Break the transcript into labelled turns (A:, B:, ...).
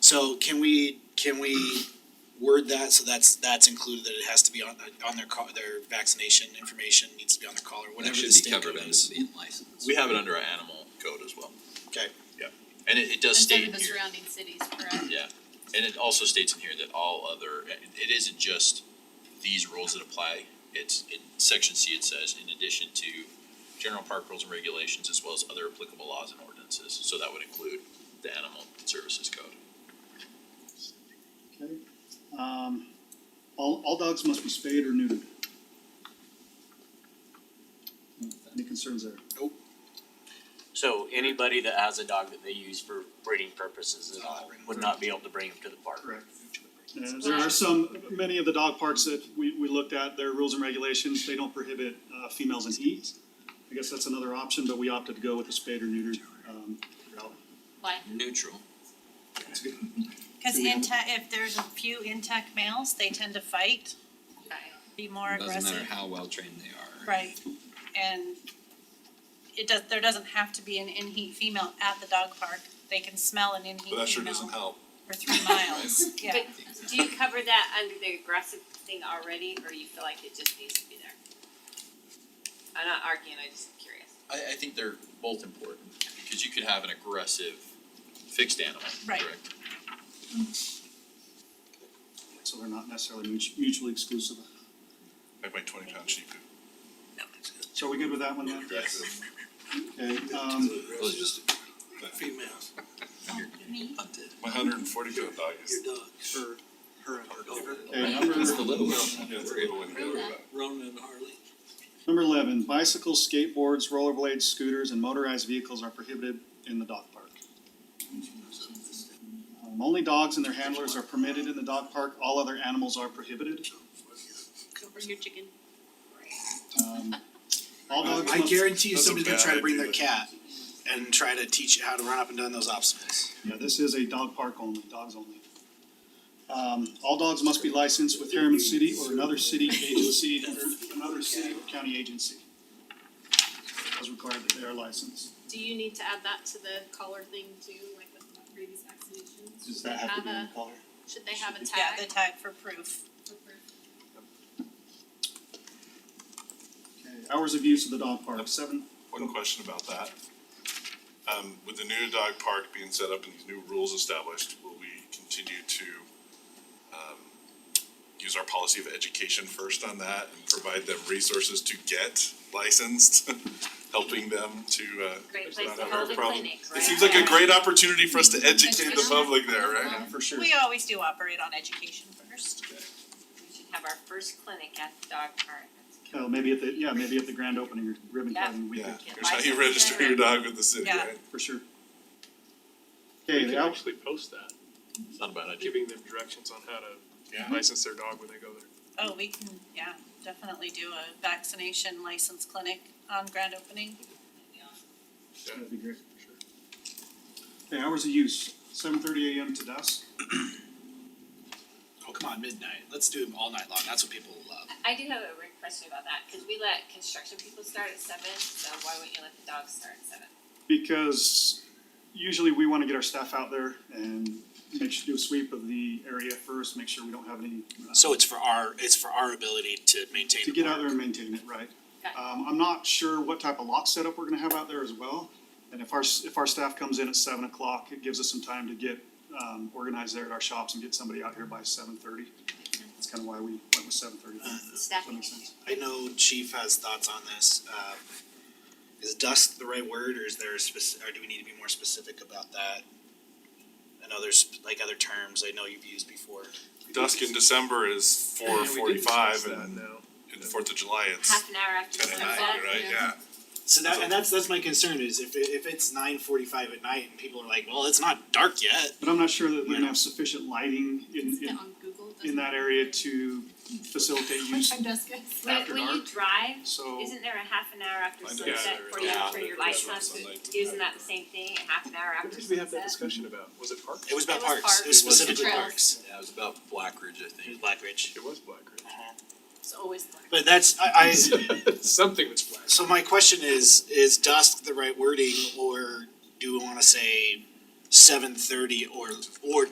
A: So can we, can we word that, so that's, that's included, that it has to be on, on their call, their vaccination information needs to be on their collar, whatever the
B: That should be
A: state
B: covered
A: code
B: under
A: is.
B: the license.
C: We have it under our animal code as well.
A: Okay.
C: Yeah, and it it does
D: Instead
C: state
D: of the
C: here,
D: surrounding cities, correct?
C: yeah, and it also states in here that all other, it- it isn't just these rules that apply. It's in section C, it says, in addition to general park rules and regulations as well as other applicable laws and ordinances, so that would include the animal services code.
E: Okay, um, all, all dogs must be spayed or neutered. Any concerns there?
F: So anybody that has a dog that they use for breeding purposes at all would not be able to bring him to the park.
E: Correct. Uh, there are some, many of the dog parks that we, we looked at, their rules and regulations, they don't prohibit, uh, females in heat. I guess that's another option, but we opted to go with the spayed or neutered, um, route.
D: Why?
B: Neutral.
G: Cause
E: Do we have-
G: intact, if there's a few intact males, they tend to fight, be more aggressive.
B: Doesn't matter how well trained they are.
G: Right, and it does, there doesn't have to be an in-heat female at the dog park, they can smell an in-heat female.
H: But that sure doesn't help.
G: For three miles, yeah.
I: But do you cover that under the aggressive thing already, or you feel like it just needs to be there? I'm not arguing, I'm just curious.
C: I I think they're both important, because you could have an aggressive fixed animal,
G: Right.
C: correct?
E: So they're not necessarily mutu- mutually exclusive.
H: I weigh twenty pounds cheaper.
E: So are we good with that one then?
H: Aggressive.
E: Okay, um,
B: Those are just
A: Females,
D: Me?
G: Oh,
B: hunted.
H: My hundred and forty pound dog is.
A: dog, her, her and her
E: okay, number.
B: It's the little one.
H: Yeah, it's a little one to worry about.
A: Ronan and Harley.
E: Number eleven, bicycles, skateboards, rollerblades, scooters, and motorized vehicles are prohibited in the dog park. Um, Only dogs and their handlers are permitted in the dog park, all other animals are prohibited.
D: Or your chicken?
E: Um, All dogs
A: I
E: must,
A: guarantee you
H: That's a
A: somebody's gonna
H: bad
A: try to bring their
H: idea.
A: cat and try to teach it how to run up and down those obstacles.
E: yeah, this is a dog park only, dogs only. Um, all dogs must be licensed with Harriman City or another city agency, or another city or county agency. As required that they are licensed.
D: Do you need to add that to the collar thing too, like with rabies vaccinations?
E: Does that have to be in color?
D: a, should they have a
G: Yeah,
D: tag?
G: the tag for proof.
E: Okay, hours of use of the dog park, seven,
H: One question about that. Um, with the new dog park being set up and these new rules established, will we continue to um, use our policy of education first on that and provide them resources to get licensed? Helping them to uh.
I: Great place
H: not
I: to
H: have our
I: hold a
H: problem.
I: clinic, right?
H: It seems like a great opportunity for us to educate the
D: Education.
H: public there, right?
E: for sure.
G: We always do operate on education first.
I: We should have our first clinic at the dog park.
E: Well, Oh, maybe at the, yeah, maybe at the grand opening or ribbon
I: Yeah.
E: cutting, we
H: Yeah,
E: could,
I: Get
H: here's how you
I: licensed
H: register your dog with the city,
G: Yeah.
H: right?
E: for sure. Okay, the hours,
J: actually post that,
C: It's not a bad idea.
J: giving them directions on how to license their dog when they go there.
G: Oh, we can, yeah, definitely do a vaccination license clinic on grand opening.
E: that'd be great, for sure. Okay, hours of use, seven thirty AM to dusk,
A: Oh, come on, midnight, let's do them all night long, that's what people will love.
I: I do have a Rick question about that, cause we let construction people start at seven, so why wouldn't you let the dogs start at seven?
E: Uh, because usually we wanna get our staff out there and make sure, do a sweep of the area first, make sure we don't have any. uh,
A: So it's for our, it's for our ability to maintain
E: To
A: the
E: get out
A: park.
E: there and maintain it, right.
I: Got it.
E: Um, I'm not sure what type of lot setup we're gonna have out there as well. And if our, s- if our staff comes in at seven o'clock, it gives us some time to get, um, organized there at our shops and get somebody out here by seven thirty. That's kinda why we went with seven thirty.
I: Staffing
E: makes sense.
I: issue.
A: I know Chief has thoughts on this, um, is dust the right word, or is there a spec- or do we need to be more specific about that? I know there's like other terms I know you've used before.
H: Dusk in December is four forty-five and
J: now.
H: in Fourth of July, it's
I: Half an hour after
H: ten at
I: sunset.
H: night, right? Yeah.
A: So that, and that's, that's my concern is if, it- if it's nine forty-five at night and people are like, well, it's not dark yet.
E: But I'm not sure that we're gonna have sufficient lighting in, in,
D: on Google?
E: in that area to facilitate use,
I: When,
E: After
I: when you
E: dark. Oh.
I: drive,
E: so.
I: isn't there a half an hour after
H: Yeah,
I: sunset
H: there
I: for
H: is.
I: you
H: Yeah,
I: for
H: there
I: your
H: is
I: lights
H: on
I: on?
H: sunlight.
I: Isn't that the same thing, a half an hour
J: What
I: after
J: did we have that
I: sunset?
J: discussion about? Was it parks?
A: It was about
D: It was
A: parks, it was
D: parks. It was
A: specifically
D: trails.
A: parks,
B: Yeah, it was about Black Ridge, I
A: it was
B: think.
A: Black Ridge.
J: It was Black Ridge.
D: It's always black.
A: But that's, I, I,
J: Something was black.
A: So my question is, is dusk the right wording or do we wanna say seven thirty or or